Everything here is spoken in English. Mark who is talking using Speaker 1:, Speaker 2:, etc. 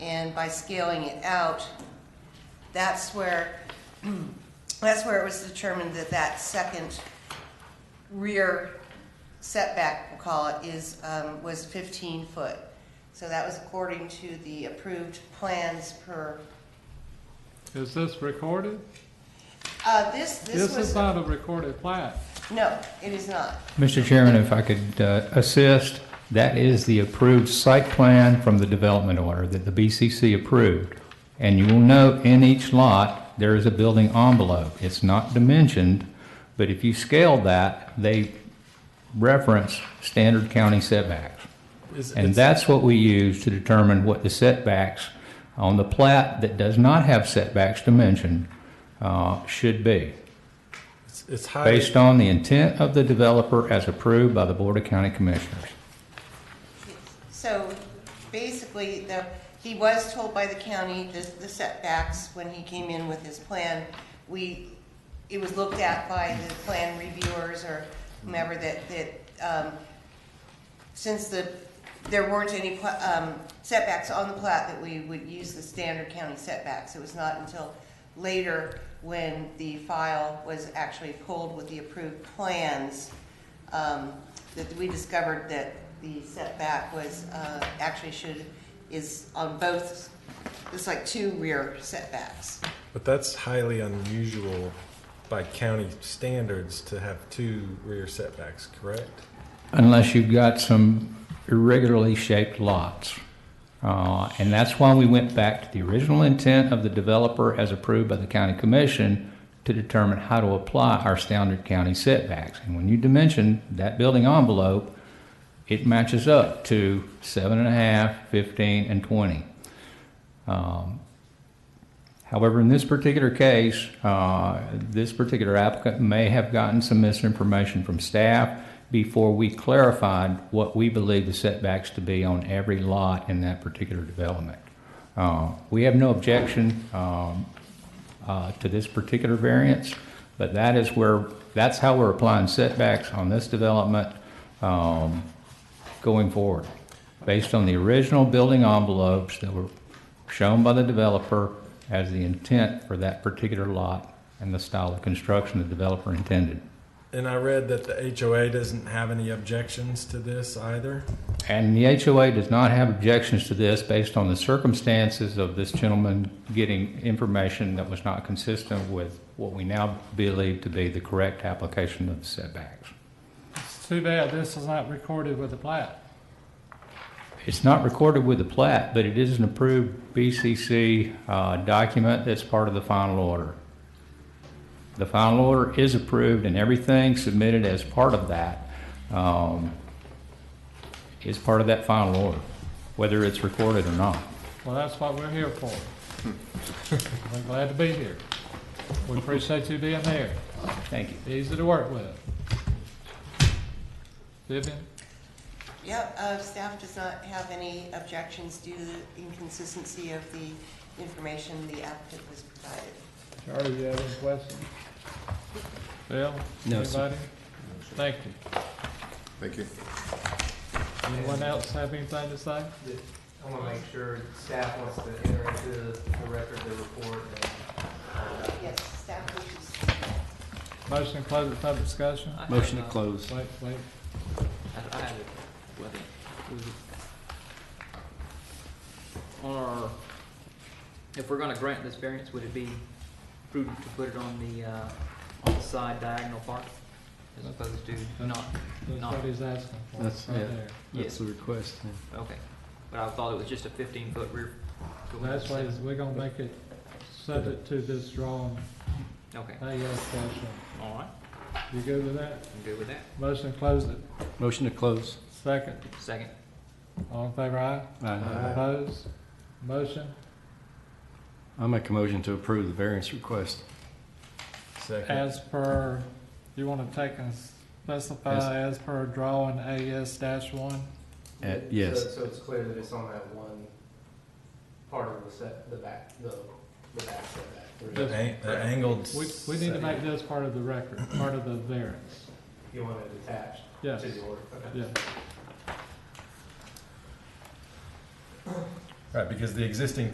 Speaker 1: And by scaling it out, that's where, that's where it was determined that that second rear setback, we'll call it, is, um, was fifteen foot. So that was according to the approved plans per,
Speaker 2: Is this recorded?
Speaker 1: uh, this, this
Speaker 2: This is
Speaker 1: was,
Speaker 2: not a recorded plat.
Speaker 1: no, it is not.
Speaker 3: Mr. Chairman, if I could uh, assist, that is the approved site plan from the development order that the BCC approved. And you will note in each lot, there is a building envelope. It's not dimensioned, but if you scale that, they reference standard county setbacks.
Speaker 4: Is-
Speaker 3: And
Speaker 4: it's-
Speaker 3: that's what we use to determine what the setbacks on the plat that does not have setbacks dimensioned uh, should be
Speaker 4: it's- It's highly,
Speaker 3: based on the intent of the developer as approved by the Board of County Commissioners.
Speaker 1: So basically, the, he was told by the county the the setbacks when he came in with his plan. We, it was looked at by the plan reviewers or whomever that, that, um, since the, there weren't any pla- um, setbacks on the plat that we would use the standard county setbacks. It was not until later when the file was actually pulled with the approved plans um, that we discovered that the setback was, uh, actually should, is on both, it's like two rear setbacks.
Speaker 4: but that's highly unusual by county standards to have two rear setbacks, correct?
Speaker 3: unless you've got some irregularly shaped lots. Uh, And that's why we went back to the original intent of the developer as approved by the county commission to determine how to apply our standard county setbacks. And when you dimension that building envelope, it matches up to seven and a half, 15, and 20. Um, However, in this particular case, uh, this particular applicant may have gotten some misinformation from staff before we clarified what we believe the setbacks to be on every lot in that particular development. Uh, We have no objection um, uh, to this particular variance, but that is where, that's how we're applying setbacks on this development um, going forward, based on the original building envelopes that were shown by the developer as the intent for that particular lot and the style of construction the developer intended.
Speaker 4: And I read that the HOA doesn't have any objections to this either.
Speaker 3: And the HOA does not have objections to this based on the circumstances of this gentleman getting information that was not consistent with what we now believe to be the correct application of the setbacks.
Speaker 2: It's too bad this is not recorded with the plat.
Speaker 3: It's not recorded with the plat, but it is an approved BCC uh, document that's part of the final order. The final order is approved and everything submitted as part of that um, is part of that final order, whether it's recorded or not.
Speaker 2: Well, that's what we're here for. We're glad to be here. We appreciate you being here.
Speaker 3: Thank you.
Speaker 2: Easy to work with. Vivian?
Speaker 1: Yep, uh, staff does not have any objections due to the inconsistency of the information the applicant was provided.
Speaker 2: Charlie, you have any questions? Bill?
Speaker 5: No, sir.
Speaker 2: Anybody? Thank you.
Speaker 6: Thank you.
Speaker 2: Anyone else have anything to say?
Speaker 7: I want to make sure staff wants to enter into the record the report and
Speaker 1: Yes, staff wishes.
Speaker 2: Motion to close the public discussion?
Speaker 7: uh,
Speaker 5: Motion to close.
Speaker 2: Wait, wait.
Speaker 7: I- I have it. Whether-
Speaker 8: Or, if we're gonna grant this variance, would it be prudent to put it on the, uh, on the side diagonal part? As opposed to not,
Speaker 2: That's
Speaker 8: Not-
Speaker 2: what he's asking for.
Speaker 5: That's-
Speaker 2: right
Speaker 5: yeah.
Speaker 2: there.
Speaker 5: That's the request. yeah.
Speaker 8: okay, but I thought it was just a fifteen foot rear.
Speaker 2: That's why is we're gonna make it subject to this drawing,
Speaker 8: Okay,
Speaker 2: hey, yes, question.
Speaker 8: all right,
Speaker 2: You good with that?
Speaker 8: I'm good with that,
Speaker 2: Motion to close it.
Speaker 5: Motion to close.
Speaker 2: Second,
Speaker 8: second.
Speaker 2: all in favor, aye?
Speaker 5: Aye.
Speaker 2: Opposed? Motion?
Speaker 5: I make a motion to approve the variance request.
Speaker 4: Second.
Speaker 2: As per, you wanna take and specify as per drawing AS dash one?
Speaker 5: Uh, yes.
Speaker 7: So- So it's clear that it's on that one part of the set, the back, the, the back setback.
Speaker 4: The
Speaker 7: There's-
Speaker 4: an- the angled.
Speaker 2: We, we need to
Speaker 4: set-
Speaker 2: make this part of the record, part of the variance.
Speaker 7: You want it attached
Speaker 2: Yes,
Speaker 7: to the order. Okay.
Speaker 2: yes.
Speaker 4: Right, because the existing